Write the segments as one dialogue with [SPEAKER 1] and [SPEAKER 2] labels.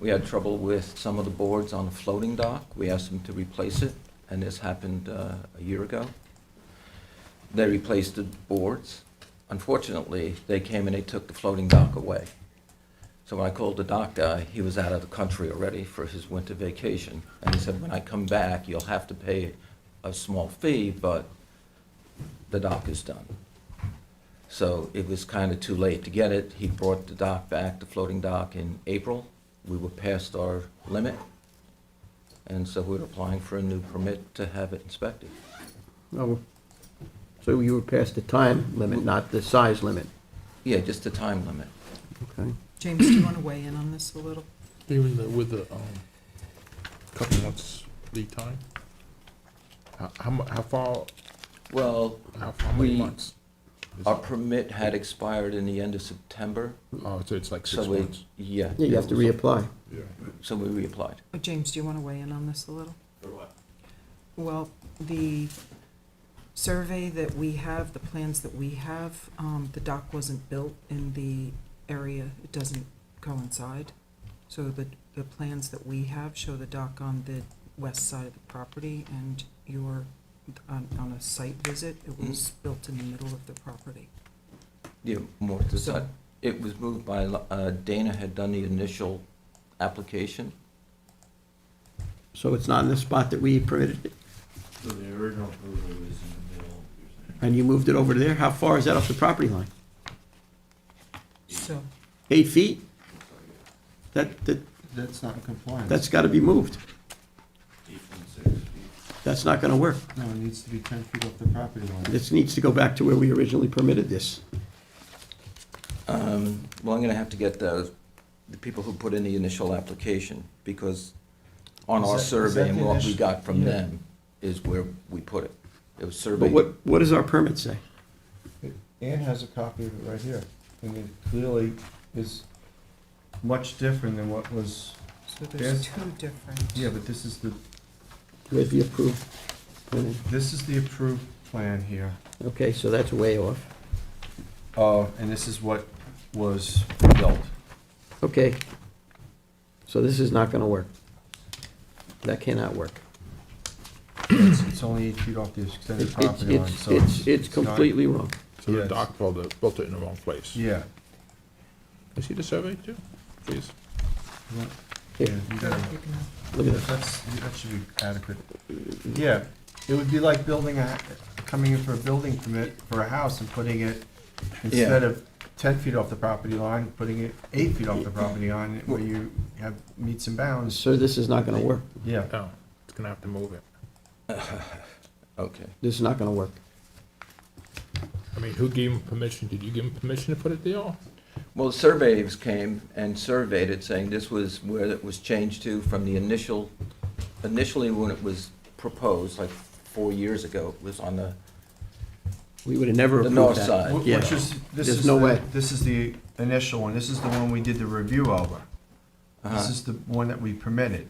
[SPEAKER 1] We had trouble with some of the boards on the floating dock. We asked them to replace it, and this happened uh, a year ago. They replaced the boards. Unfortunately, they came and they took the floating dock away. So when I called the dock guy, he was out of the country already for his winter vacation. And he said, when I come back, you'll have to pay a small fee, but the dock is done. So it was kind of too late to get it. He brought the dock back, the floating dock, in April. We were past our limit. And so we're applying for a new permit to have it inspected.
[SPEAKER 2] Oh, so you were past the time limit, not the size limit,
[SPEAKER 1] Yeah, just the time limit.
[SPEAKER 2] okay?
[SPEAKER 3] James, do you want to weigh in on this a little?
[SPEAKER 4] Even the- with the, um, couple months lead time? How, how, mu- how far,
[SPEAKER 1] Well,
[SPEAKER 4] how, how many
[SPEAKER 1] We- Uh,
[SPEAKER 4] months? Is-
[SPEAKER 1] our permit had expired in the end of September,
[SPEAKER 4] Oh, so it's like
[SPEAKER 1] so
[SPEAKER 4] six
[SPEAKER 1] we,
[SPEAKER 4] months?
[SPEAKER 1] yeah.
[SPEAKER 2] Yeah, you have to reapply.
[SPEAKER 4] Yeah.
[SPEAKER 1] So we reapplied.
[SPEAKER 3] Oh, James, do you want to weigh in on this a little?
[SPEAKER 5] For what?
[SPEAKER 3] Well, the survey that we have, the plans that we have, um, the dock wasn't built in the area, it doesn't coincide. So the, the plans that we have show the dock on the west side of the property and your, on, on a site visit, it
[SPEAKER 6] Hmm?
[SPEAKER 3] was built in the middle of the property.
[SPEAKER 1] Yeah, more to the
[SPEAKER 3] So-
[SPEAKER 1] side. It was moved by, uh, Dana had done the initial application.
[SPEAKER 2] So it's not in the spot that we permitted it,
[SPEAKER 5] So the original approval was in the middle, you're saying?
[SPEAKER 2] and you moved it over to there? How far is that off the property line?
[SPEAKER 3] So,
[SPEAKER 2] Eight feet? That, that,
[SPEAKER 6] That's not in compliance.
[SPEAKER 2] that's gotta be moved.
[SPEAKER 5] Eight point six feet.
[SPEAKER 2] That's not gonna work.
[SPEAKER 6] No, it needs to be ten feet off the property line.
[SPEAKER 2] This needs to go back to where we originally permitted this.
[SPEAKER 1] Um, Well, I'm going to have to get the, the people who put in the initial application, because on
[SPEAKER 6] Is
[SPEAKER 1] our
[SPEAKER 6] that- is
[SPEAKER 1] survey
[SPEAKER 6] that
[SPEAKER 1] and
[SPEAKER 6] the
[SPEAKER 1] what we
[SPEAKER 6] initial-
[SPEAKER 1] got from
[SPEAKER 6] yeah.
[SPEAKER 1] them is where we put it. It was
[SPEAKER 2] But
[SPEAKER 1] surveyed.
[SPEAKER 2] what, what does our permit say?
[SPEAKER 6] Ann has a copy of it right here, and it clearly is much different than what was,
[SPEAKER 3] so there's
[SPEAKER 6] Yes.
[SPEAKER 3] two different.
[SPEAKER 6] yeah, but this is the,
[SPEAKER 2] Where's the approved plan?
[SPEAKER 6] this is the approved plan here.
[SPEAKER 2] Okay, so that's way off.
[SPEAKER 6] Uh, and this is what was built.
[SPEAKER 2] Okay. So this is not gonna work. That cannot work.
[SPEAKER 6] It's it's only eight feet off the extended
[SPEAKER 2] It's,
[SPEAKER 6] property line,
[SPEAKER 2] it's,
[SPEAKER 6] so.
[SPEAKER 2] it's, it's
[SPEAKER 6] not-
[SPEAKER 2] completely wrong.
[SPEAKER 4] So the
[SPEAKER 6] Yes.
[SPEAKER 4] dock built it, built it in the wrong place?
[SPEAKER 6] Yeah.
[SPEAKER 4] I see the survey too, please?
[SPEAKER 6] Yeah,
[SPEAKER 2] Here,
[SPEAKER 6] you
[SPEAKER 3] You
[SPEAKER 6] gotta-
[SPEAKER 3] can have-
[SPEAKER 2] Look at this.
[SPEAKER 6] That's, that should be adequate. Yeah, it would be like building a, coming in for a building permit for a house and putting it, instead of ten feet off the property line, putting it eight feet off the property line, where you have meets and bounds.
[SPEAKER 2] Sir, this is not gonna work.
[SPEAKER 6] Yeah,
[SPEAKER 4] No, Oh, it's gonna have to move it.
[SPEAKER 1] Okay.
[SPEAKER 2] This is not gonna work.
[SPEAKER 4] I mean, who gave him permission? Did you give him permission to put it there?
[SPEAKER 1] Well, surveys came and surveyed it, saying this was where it was changed to from the initial, initially when it was proposed, like four years ago, it was on the,
[SPEAKER 2] We would have never
[SPEAKER 1] the
[SPEAKER 2] approved that.
[SPEAKER 1] north side.
[SPEAKER 6] Wh-
[SPEAKER 2] Yeah.
[SPEAKER 6] which is, this
[SPEAKER 2] There's
[SPEAKER 6] is,
[SPEAKER 2] no
[SPEAKER 6] the-
[SPEAKER 2] way.
[SPEAKER 6] this is the initial one, this is the one we did the review over. This
[SPEAKER 1] Uh-huh.
[SPEAKER 6] is the one that we permitted.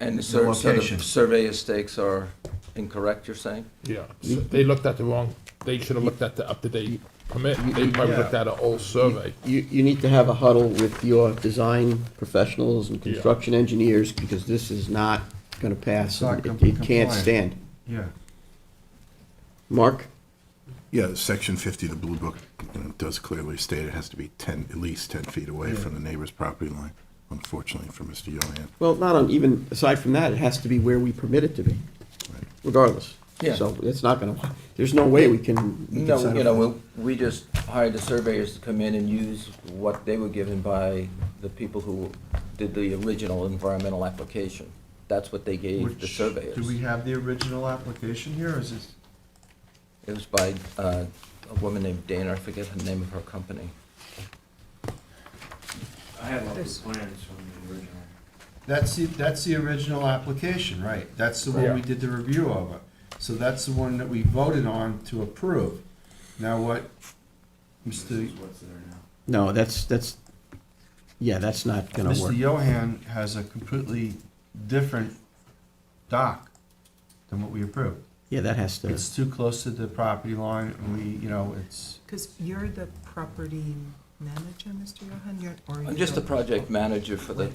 [SPEAKER 1] And the
[SPEAKER 6] the
[SPEAKER 1] sur- so the
[SPEAKER 6] location.
[SPEAKER 1] survey stakes are incorrect, you're saying?
[SPEAKER 4] Yeah, so they looked at the wrong, they should have looked at the up-to-date permit. They probably
[SPEAKER 6] Yeah.
[SPEAKER 4] looked at an old survey.
[SPEAKER 2] You, you need to have a huddle with your design professionals and
[SPEAKER 4] Yeah.
[SPEAKER 2] construction engineers, because this is not gonna pass.
[SPEAKER 6] It's not
[SPEAKER 2] It-
[SPEAKER 6] com-
[SPEAKER 2] It can't
[SPEAKER 6] compliant.
[SPEAKER 2] stand.
[SPEAKER 6] Yeah.
[SPEAKER 2] Mark,
[SPEAKER 7] Yeah, section fifty of the Blue Book you know, does clearly state it has to be ten, at least ten feet away
[SPEAKER 6] Yeah.
[SPEAKER 7] from the neighbor's property line, unfortunately for Mr. Johann.
[SPEAKER 2] well, not on, even aside from that, it has to be where we permit it to be, regardless.
[SPEAKER 1] Yeah.
[SPEAKER 2] So it's not gonna, there's no way we can. we can
[SPEAKER 1] No,
[SPEAKER 2] settle
[SPEAKER 1] you know,
[SPEAKER 2] for this.
[SPEAKER 1] we we just hired the surveyors to come in and use what they were given by the people who did the original environmental application. That's what they gave the
[SPEAKER 6] Which- Do we
[SPEAKER 1] surveyors.
[SPEAKER 6] have the original application here, or is this?
[SPEAKER 1] It was by uh, a woman named Dana, I forget the name of her company.
[SPEAKER 5] I have all the
[SPEAKER 3] There's-
[SPEAKER 5] plans from the original.
[SPEAKER 6] That's the, that's the original application, right? That's the
[SPEAKER 4] Yeah.
[SPEAKER 6] one we did the review of. So that's the one that we voted on to approve. Now what,
[SPEAKER 5] This
[SPEAKER 6] Mr.
[SPEAKER 5] is what's there now.
[SPEAKER 2] No, that's, that's, yeah, that's not gonna work.
[SPEAKER 6] Mr. Johan has a completely different dock than what we approved.
[SPEAKER 2] Yeah, that has to,
[SPEAKER 6] It's too close to the property line, and we, you know, it's,
[SPEAKER 3] Because you're the property manager, Mr. Johan? You're- or
[SPEAKER 1] I'm
[SPEAKER 3] you're
[SPEAKER 1] just a
[SPEAKER 3] the-
[SPEAKER 1] project manager for the